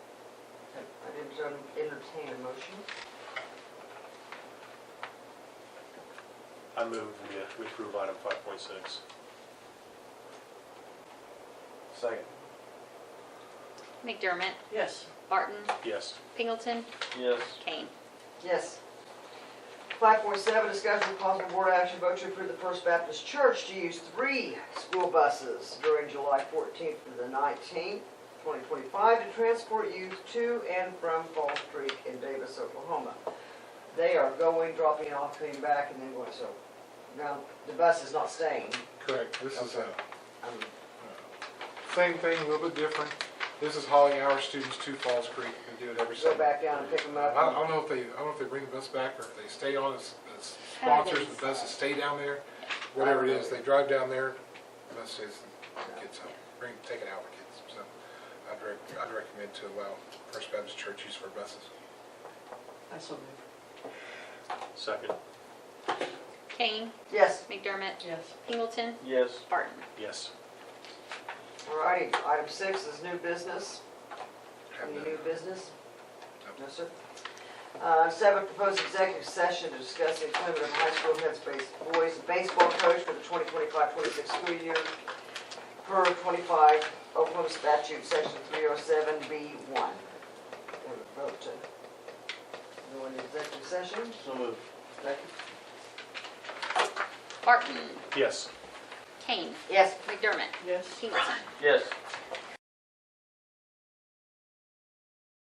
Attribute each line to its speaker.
Speaker 1: entertain entertain a motion.
Speaker 2: I move we, uh, we approve item five point six.
Speaker 3: Second.
Speaker 4: McDermott,
Speaker 5: Yes.
Speaker 4: Barton,
Speaker 2: Yes.
Speaker 4: Pingleton,
Speaker 3: Yes.
Speaker 4: Kane.
Speaker 1: Yes. Five point seven, discussion with possible board action vote to approve the First Baptist Church to use three school buses during July fourteenth through the nineteenth, twenty twenty-five, to transport youth to and from Falls Creek in Davis, Oklahoma. They are going, dropping off, coming back, and then going, so, now, the bus is not staying,
Speaker 6: Correct, this is a,
Speaker 1: um,
Speaker 6: same thing, a little bit different. This is hauling our students to Falls Creek and do it every
Speaker 1: go
Speaker 6: summer.
Speaker 1: back down and pick them
Speaker 6: I
Speaker 1: up.
Speaker 6: I don't know if they, I don't know if they bring the bus back or if they stay on as as
Speaker 4: How do they
Speaker 6: sponsors, the buses stay down there. Whatever it is, they drive down there, the bus stays, and the kids home, bring, take it out with kids. So I'd rec, I'd recommend to allow First Baptist Church use for buses.
Speaker 5: I so moved.
Speaker 2: Second.
Speaker 4: Kane,
Speaker 1: Yes,
Speaker 4: McDermott,
Speaker 5: Yes.
Speaker 4: Pingleton,
Speaker 3: Yes.
Speaker 4: Barton.
Speaker 2: Yes.
Speaker 1: alrighty, item six is new business.
Speaker 6: Have
Speaker 1: Any
Speaker 6: the-
Speaker 1: new business? No, sir. Uh, Seven, proposed executive session to discuss the employment of high school head space boys baseball coach for the 2025-26 school year per 25 Oklahoma statute, section 307B1. Have a vote to Go into executive session.
Speaker 3: So moved.
Speaker 1: Second.
Speaker 4: Barton,
Speaker 2: Yes.
Speaker 4: Kane,
Speaker 1: Yes.
Speaker 4: McDermott,
Speaker 5: Yes.
Speaker 4: Pingleton.
Speaker 3: Yes.